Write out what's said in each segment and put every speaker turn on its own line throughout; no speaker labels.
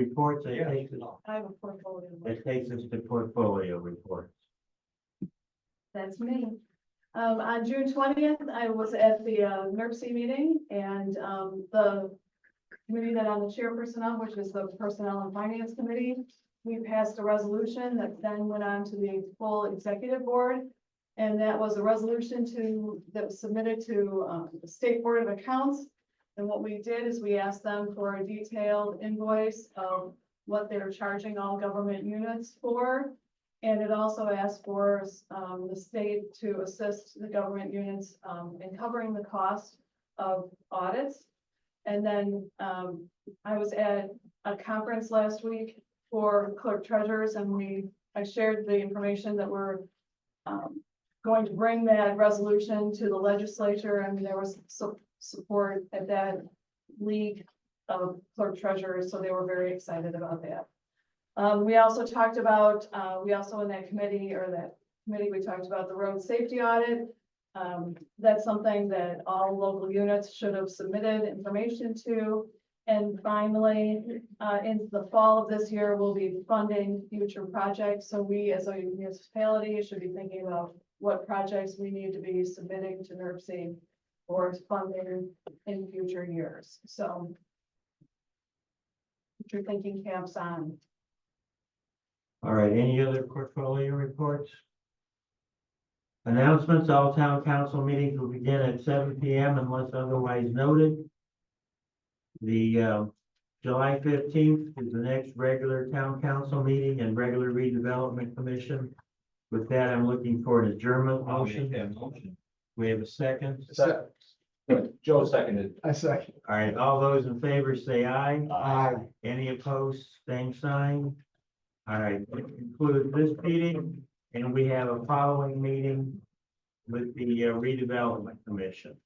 reports, it
Yeah.
takes us,
I have a portfolio.
it takes us to portfolio reports.
That's me. Um, on June twentieth, I was at the uh, NERC meeting and, um, the committee that I'm the chairperson of, which is the Personnel and Finance Committee, we passed a resolution that then went on to the full executive board. And that was a resolution to, that was submitted to, um, the State Board of Accounts. And what we did is we asked them for a detailed invoice of what they're charging all government units for. And it also asked for um, the state to assist the government units um, in covering the cost of audits. And then um, I was at a conference last week for clerk treasurers and we, I shared the information that we're um, going to bring that resolution to the legislature and there was su- support at that league of clerk treasurers, so they were very excited about that. Um, we also talked about, uh, we also in that committee or that committee, we talked about the road safety audit. Um, that's something that all local units should have submitted information to. And finally, uh, in the fall of this year, we'll be funding future projects. So we as a municipality should be thinking about what projects we need to be submitting to NERC or funding in future years. So future thinking camps on.
All right, any other portfolio reports? Announcements, all town council meetings will begin at seven P M unless otherwise noted. The uh, July fifteenth is the next regular town council meeting and regular redevelopment commission. With that, I'm looking for an adjournment motion. We have a second.
Second.
Joe seconded.
I second.
All right, all those in favor say aye.
Aye.
Any opposed, same sign? All right, we conclude this meeting, and we have a following meeting with the uh, redevelopment commission.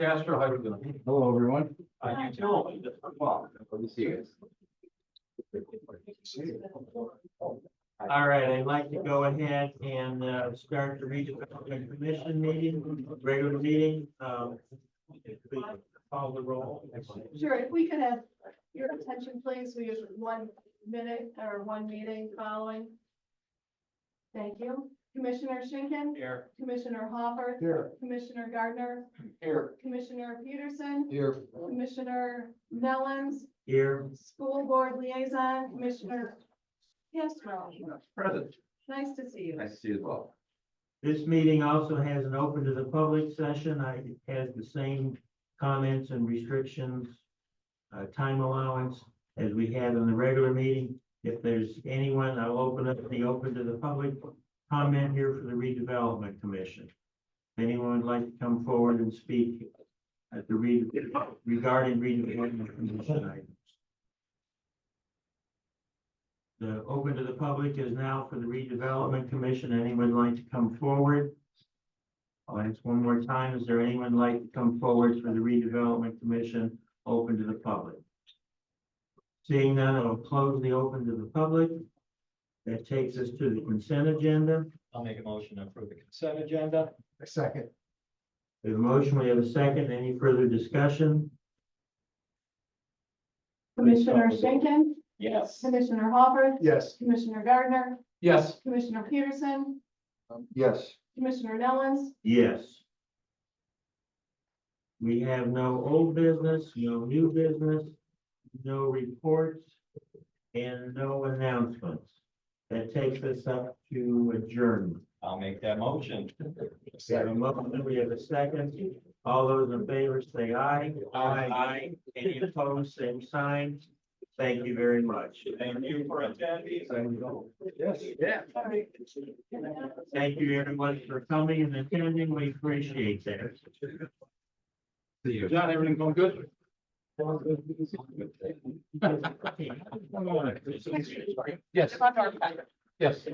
Castro, how are you doing?
Hello, everyone.
I do too. Good to see you guys.
All right, I'd like to go ahead and uh, start the redevelopment commission meeting, regular meeting. um, if we Call the roll.
Sure, if we could have your attention, please, we use one minute or one meeting following. Thank you. Commissioner Schinkin,
Here.
Commissioner Hopper,
Here.
Commissioner Gardner,
Here.
Commissioner Peterson,
Here.
Commissioner Nellens,
Here,
School Board Liaison, Commissioner Castro.
Present.
Nice to see you.
Nice to see you as well.
this meeting also has an open to the public session. I, it has the same comments and restrictions, uh, time allowance as we had in the regular meeting. If there's anyone, I'll open up the open to the public comment here for the redevelopment commission. If anyone would like to come forward and speak at the re, regarding redevelopment commission items. The open to the public is now for the redevelopment commission. Anyone like to come forward? I'll ask one more time. Is there anyone like to come forward for the redevelopment commission, open to the public? Seeing none, I'll close the open to the public. That takes us to the consent agenda.
I'll make a motion to approve the consent agenda.
I second.
We have a motion, we have a second. Any further discussion?
Commissioner Schinkin,
Yes.
Commissioner Hopper,
Yes.
Commissioner Gardner,
Yes.
Commissioner Peterson,
Yes.
Commissioner Nellens,
Yes. We have no old business, no new business, no reports, and no announcements. That takes us up to adjournment.
I'll make that motion.
We have a motion, we have a second. All those in favor say aye. Aye. Any opposed, same sign. Thank you very much.
Thank you for attending.
Yes.
Yeah.
Thank you, everyone, for coming and attending. We appreciate that.
See you. John, everything going good? Yes. Yes.